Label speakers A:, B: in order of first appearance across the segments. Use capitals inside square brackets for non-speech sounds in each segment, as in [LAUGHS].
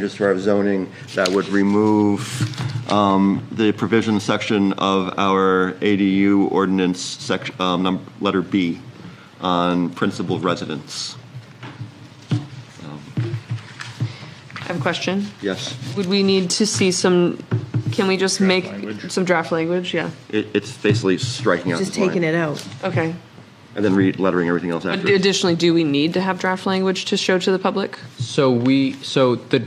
A: changes to our zoning that would remove um, the provision section of our ADU ordinance, section, letter B, on principal residence.
B: I have a question.
A: Yes,
B: Would we need to see some, can we just make some draft language? Yeah,
A: it- it's basically striking out
C: Just
A: this line.
C: taking it out.
B: okay.
A: And then re-lettering everything else after.
B: Additionally, do we need to have draft language to show to the public?
D: So we, so the,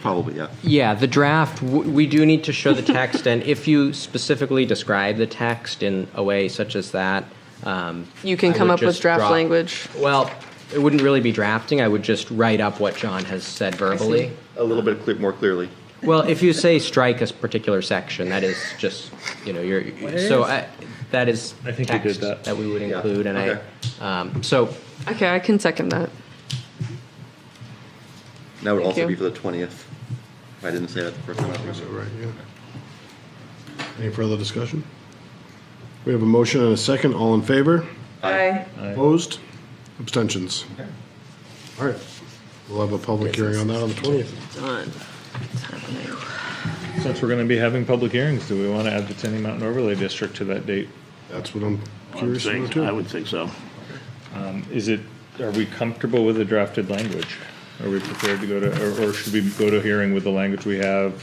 A: Probably, yeah.
D: yeah, the draft, w- we do need to show the text, and if you specifically describe the text in a way such as that, um,
B: You can
D: I
B: come
D: would
B: up with
D: just
B: draft
D: drop-
B: language.
D: Well, it wouldn't really be drafting, I would just write up what John has said verbally.
A: A little bit cle- more clearly.
D: Well, if you say strike a particular section, that is just, you know, you're, so I, that is
E: I think we did
D: text
E: that.
D: that we would
A: Yeah,
D: include, and I,
A: okay.
D: um, so,
B: Okay, I can second that.
A: That would
B: Thank
A: also
B: you.
A: be for the 20th. If I didn't say that the first time. I think
F: Is that right? Yeah. Any further discussion? We have a motion and a second. All in favor?
B: Aye.
F: Opposed? Abstentions? All right. We'll have a public hearing on that on the 20th.
C: Done.
E: Since we're going to be having public hearings, do we want to add the Tenny Mountain Overlay District to that date?
F: That's what I'm
G: I would
F: curious about,
G: think- I
F: too.
G: would think so.
E: Um, Is it, are we comfortable with the drafted language? Are we prepared to go to, or- or should we go to hearing with the language we have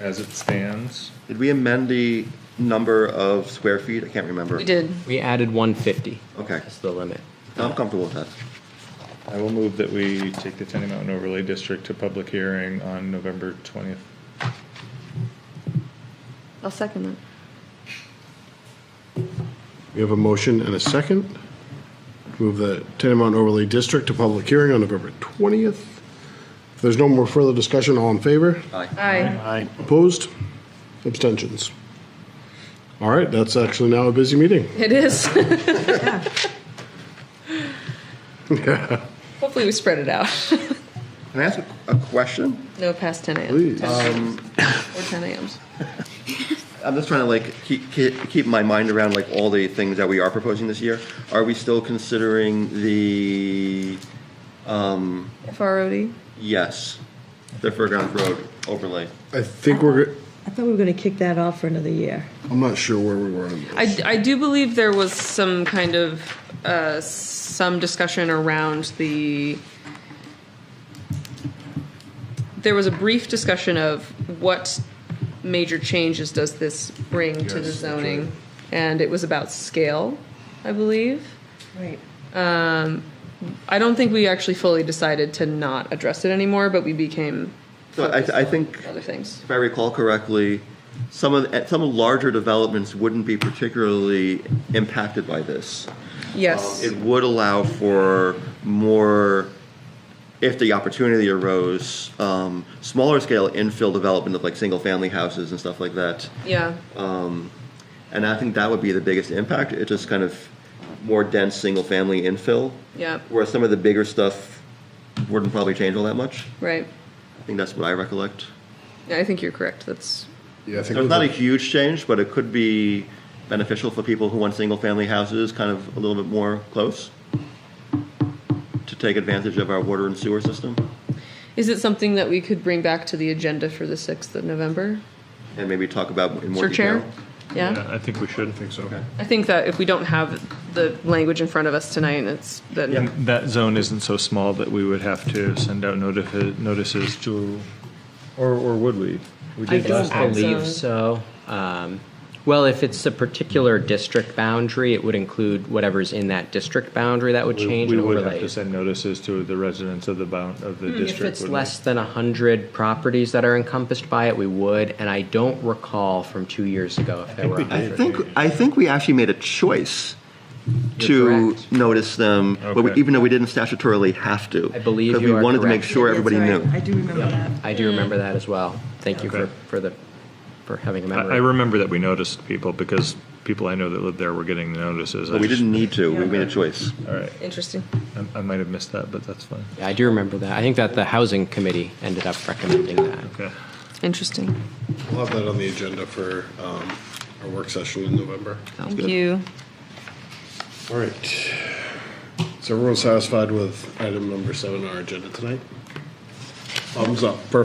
E: as it stands?
A: Did we amend the number of square feet? I can't remember.
B: We did.
D: we added one fifty.
A: Okay.
D: That's the limit.
A: I'm comfortable with that.
E: I will move that we take the Tenny Mountain Overlay District to public hearing on November 20th.
B: I'll second that.
F: We have a motion and a second. Move the Tenenbaum Overlay District to public hearing on November 20th. If there's no more further discussion, all in favor?
A: Aye.
B: Aye.
G: I,
F: Opposed? Abstentions? All right, that's actually now a busy meeting.
B: It is. [LAUGHS] Hopefully, we spread it out. [LAUGHS]
A: Can I ask a- a question?
B: No past 10 a.m.
F: Please.
B: 10 Or 10 a.m.
A: I'm just trying to like keep, keep keep my mind around like all the things that we are proposing this year. Are we still considering the
B: FROD.
A: yes, the Fairgrounds Road overlay?
F: I think we're, go-
C: I thought we were going to kick that off for another year.
F: I'm not sure where we were on
B: I,
F: this.
B: I do believe there was some kind of, uh, some discussion around the, there was a brief discussion of what major changes does this bring to the
F: Yes, that's
B: zoning? And it was about scale, I believe. Um,
C: Right.
B: I don't think we actually fully decided to not address it anymore, but we became
A: So I, I think
B: other things.
A: if I recall correctly, some of the- some larger developments wouldn't be particularly impacted by this.
B: Yes,
A: Um, It would allow for more, if the opportunity arose, um, smaller scale infill development of like single family houses and stuff like that.
B: yeah.
A: And I think that would be the biggest impact. It's just kind of more dense single family infill.
B: Yeah.
A: Whereas some of the bigger stuff wouldn't probably change all that much.
B: Right.
A: I think that's what I recollect.
B: Yeah, I think you're correct. That's,
F: Yeah, I think
A: So it's not
F: we're-
A: a huge change, but it could be beneficial for people who want single family houses kind of a little bit more close to take advantage of our water and sewer system
B: is it something that we could bring back to the agenda for the 6th of November?
A: and maybe talk about in more
B: Sir
A: detail.
B: Chair? Yeah,
E: I think we should.
F: think so.
B: I think that if we don't have the language in front of us tonight, it's, then,
E: And that zone isn't so small that we would have to send out notifi- notices to, or, or would we? We
D: I
E: did
D: don't
E: last time.
D: believe so. Um, Well, if it's a particular district boundary, it would include whatever's in that district boundary that would
E: We
D: change
E: we
D: and
E: would have
D: overlay. Hmm,
E: to send notices to the residents of the bound, of the district.
D: If it's
E: wouldn't we?
D: less than 100 properties that are encompassed by it, we would, and I don't recall from two years ago if there were
A: I
D: 100.
A: think I think we actually made a choice
D: You're
A: to
D: correct.
A: notice them, but we,
E: Okay.
A: even though we didn't statutorily have to.
D: I believe
A: 'cause
D: you
A: we
D: are
A: wanted to make
D: correct.
A: sure everybody
C: That's
A: knew.
C: right. I do remember that.
D: I do remember that as well. Thank you for,
E: Okay.
D: for the, for having a
E: I I
D: memory.
E: remember that we noticed people because people I know that lived there were getting the notices. I
A: But we
E: just-
A: didn't need to. We made a choice.
E: All right,
B: interesting.
E: I- I might have missed that, but that's fine.
D: Yeah, I do remember that. I think that the housing committee ended up recommending that.
E: Okay.
B: Interesting.
F: We'll have that on the agenda for um, our work session in November.
B: Thank you.
F: All right. So everyone satisfied with item number seven on our agenda tonight? Thumbs up. Perfect.